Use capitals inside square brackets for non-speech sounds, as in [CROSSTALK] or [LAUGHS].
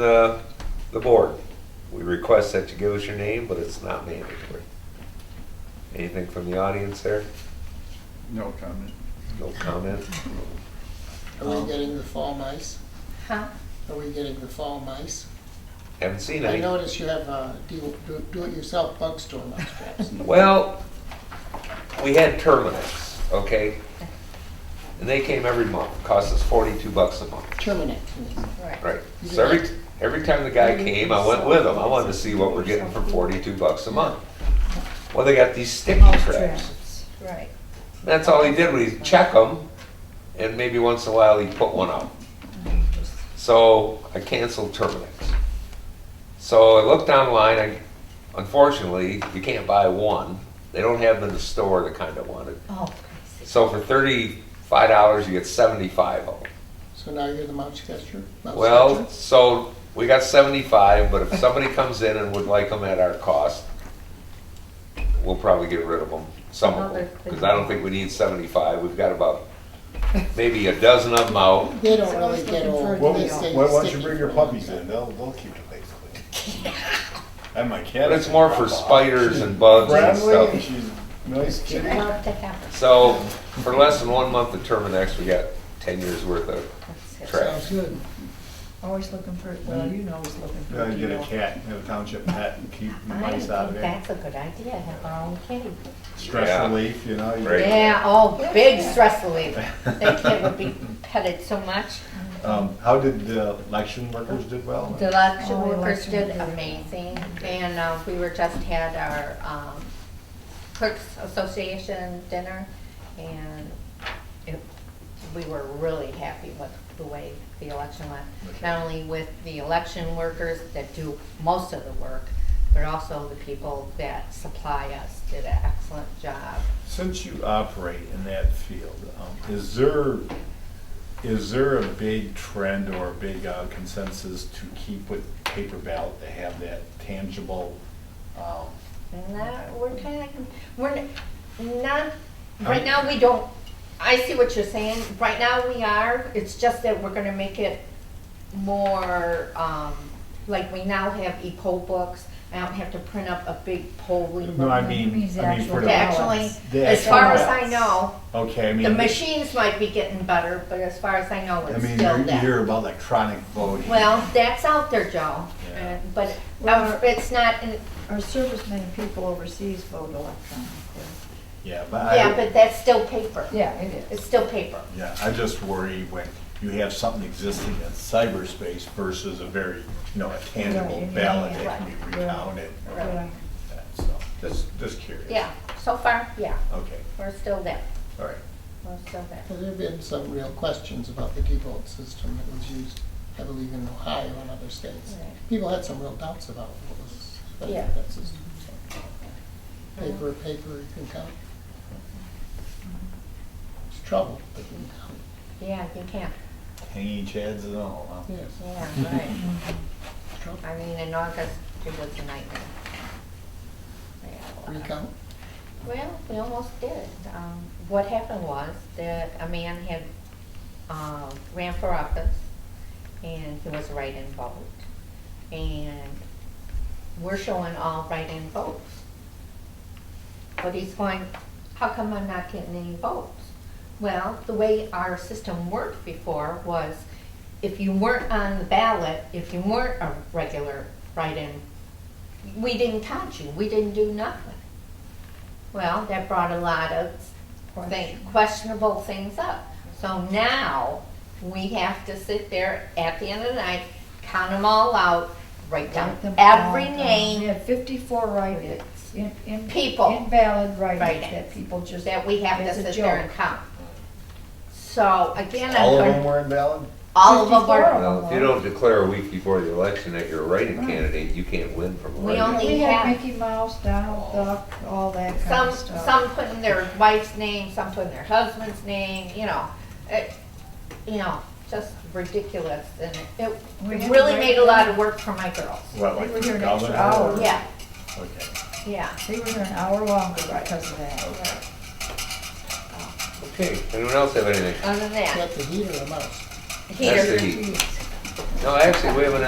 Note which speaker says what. Speaker 1: the, the board. We request that you give us your name, but it's not mandatory. Anything from the audience there?
Speaker 2: No comment.
Speaker 1: No comment?
Speaker 3: Are we getting the fall mice?
Speaker 4: Huh?
Speaker 3: Are we getting the fall mice?
Speaker 1: Haven't seen
Speaker 3: I
Speaker 1: any.
Speaker 3: notice you have a do- do- do-it-yourself bug store mousetraps.
Speaker 1: Well, we had Terminix, okay? And they came every month, cost us forty-two bucks a month.
Speaker 3: Terminate.
Speaker 1: Right. So every, every time the guy came, I went with him. I wanted to see what we're getting for forty-two bucks a month. Well, they got these sticky
Speaker 4: Mouse
Speaker 1: traps.
Speaker 4: Right.
Speaker 1: That's all he did was he'd check them, and maybe once in a while he'd put one out. So I canceled Terminix. So I looked online, I, unfortunately, you can't buy one. They don't have them in the store, the kind I wanted.
Speaker 4: Oh, I see.
Speaker 1: So for thirty-five dollars, you get seventy-five of them.
Speaker 3: So now you're the mouse catcher? mouse
Speaker 1: Well,
Speaker 3: catcher?
Speaker 1: so we got seventy-five, but if somebody comes in and would like them at our cost, we'll probably get rid of them, some of them, because I don't think we need seventy-five, we've got about maybe a dozen of them out.
Speaker 3: They don't really
Speaker 4: Someone's
Speaker 3: get
Speaker 4: looking for
Speaker 3: old.
Speaker 4: a
Speaker 2: Well,
Speaker 3: They
Speaker 4: deal.
Speaker 3: stay
Speaker 2: why don't you
Speaker 3: sticky
Speaker 2: bring your
Speaker 3: for a long
Speaker 2: puppies
Speaker 3: time.
Speaker 2: in, they'll, they'll keep the place clean.
Speaker 1: [LAUGHS]
Speaker 2: And my cat.
Speaker 1: But it's more for spiders and bugs and
Speaker 2: Friendly,
Speaker 1: stuff.
Speaker 2: she's a nice kitty.
Speaker 4: I love to have
Speaker 1: So for less than one month of Terminex, we got ten years worth of,
Speaker 4: it.
Speaker 1: Trash.
Speaker 3: Sounds good.
Speaker 5: Always looking for, well, you know, always looking for a
Speaker 2: Gotta get
Speaker 5: deal.
Speaker 2: a cat, have a township pet and keep the
Speaker 4: I think
Speaker 2: mice out of it.
Speaker 4: that's a good idea, have our own kitty.
Speaker 2: Stress
Speaker 1: Yeah.
Speaker 2: relief, you know. you-
Speaker 1: Right.
Speaker 4: Yeah, oh, big stress relief.
Speaker 2: [LAUGHS]
Speaker 4: That kid would be petted so much.
Speaker 2: Um, how did the election workers did well?
Speaker 4: The election
Speaker 5: Oh,
Speaker 4: workers
Speaker 5: election
Speaker 4: did
Speaker 5: workers.
Speaker 4: amazing, and uh, we were just had our um, clerks association dinner, and it- we were really happy with the way the election went. Not only with the election workers that do most of the work, but also the people that supply us did an excellent job.
Speaker 2: Since you operate in that field, um, is there, is there a big trend or a big uh, consensus to keep with paper ballot, to have that tangible, um,
Speaker 4: And that, we're kind of, we're n- not, right now, we don't, I see what you're saying, right now, we are, it's just that we're gonna make it more, um, like, we now have e-poll books, I don't have to print up a big polling.
Speaker 2: no,
Speaker 4: book.
Speaker 2: I mean,
Speaker 5: Means
Speaker 2: I mean for
Speaker 5: actual
Speaker 2: the.
Speaker 4: Yeah, Actually,
Speaker 2: The
Speaker 4: as
Speaker 2: actual
Speaker 4: far as I
Speaker 2: ballots.
Speaker 4: know,
Speaker 2: Okay, I mean.
Speaker 4: the machines might be getting better, but as far as I know,
Speaker 2: I
Speaker 4: it's
Speaker 2: mean,
Speaker 4: still
Speaker 2: you
Speaker 4: that.
Speaker 2: hear about electronic voting.
Speaker 4: Well, that's out there, Joe,
Speaker 2: Yeah.
Speaker 4: and- but um,
Speaker 5: Well-
Speaker 4: it's not, in-
Speaker 5: Our servicemen and people overseas vote electronically.
Speaker 2: Yeah, but
Speaker 4: yeah,
Speaker 2: I,
Speaker 4: but that's still paper,
Speaker 5: Yeah, it
Speaker 4: it's still paper.
Speaker 2: yeah, I just worry when you have something existing in cyberspace versus a very, you know, a tangible
Speaker 5: Right, yeah,
Speaker 2: ballot
Speaker 5: yeah,
Speaker 2: that can
Speaker 4: right,
Speaker 2: be
Speaker 5: yeah.
Speaker 2: recounted. or
Speaker 4: Right.
Speaker 2: like that, So, just, just curious.
Speaker 4: Yeah, so far, yeah,
Speaker 2: Okay,
Speaker 4: we're still there,
Speaker 2: all right.
Speaker 4: we're still there.
Speaker 3: Well, There have been some real questions about the default system that was used, I believe, in Ohio and other states.
Speaker 4: Right.
Speaker 3: People had some real doubts about what was,
Speaker 4: Yeah. Mm-hmm.
Speaker 3: that system. so. Paper, paper, you can count. It's trouble, but you can count.
Speaker 4: Yeah, you can,
Speaker 2: Hanging chads and all, huh?
Speaker 3: Yes,
Speaker 4: [LAUGHS] yeah, right.
Speaker 3: it's trouble.
Speaker 4: I mean, in August, it was a nightmare. We had a lot.
Speaker 3: Recount.
Speaker 4: Well, we almost did. Um, What happened was that a man had, um, ran for office and he was write-in vote. And we're showing all write-in votes. But he's going, how come I'm not getting any votes? Well, the way our system worked before was if you weren't on the ballot, if you weren't a regular write-in, we didn't count you, we didn't do nothing. Well, that brought a lot of thing- questionable things up. So now, we have to sit there at the end of the night, count them all out, write down
Speaker 5: Write them
Speaker 4: every
Speaker 5: all down. We
Speaker 4: name
Speaker 5: had fifty-four write-ins, in, in.
Speaker 4: People.
Speaker 5: Invalid write-ins
Speaker 4: Write-ins.
Speaker 5: that people just.
Speaker 4: that we have to
Speaker 5: as a
Speaker 4: sit there and
Speaker 5: joke.
Speaker 4: count. So again, I'm
Speaker 2: All of them
Speaker 4: going,
Speaker 2: were invalid?
Speaker 4: all of them
Speaker 5: 54
Speaker 4: are,
Speaker 1: Well, if you don't declare a week before the election that you're a writing candidate, you can't win from
Speaker 4: We
Speaker 1: running.
Speaker 4: only-
Speaker 5: We had
Speaker 4: have-
Speaker 5: Mickey Mouse, Donald Duck, all that kind
Speaker 4: some,
Speaker 5: of stuff.
Speaker 4: some putting their wife's name, some putting their husband's name, you know. It, you know, just ridiculous and it
Speaker 5: We
Speaker 4: it
Speaker 5: had
Speaker 4: really
Speaker 5: to
Speaker 4: made a
Speaker 5: write-
Speaker 4: lot of work for my girls.
Speaker 2: What,
Speaker 5: They
Speaker 2: like
Speaker 5: were
Speaker 2: the
Speaker 5: here an extra
Speaker 2: governor?
Speaker 5: hour.
Speaker 4: Yeah,
Speaker 2: Okay,
Speaker 4: yeah.
Speaker 5: They were here an hour longer because of that.
Speaker 2: okay.
Speaker 1: Okay, anyone else have anything?
Speaker 4: Other than that,
Speaker 3: Got the heater, a mouse.
Speaker 4: heater.
Speaker 1: That's the heat. No, actually, we have an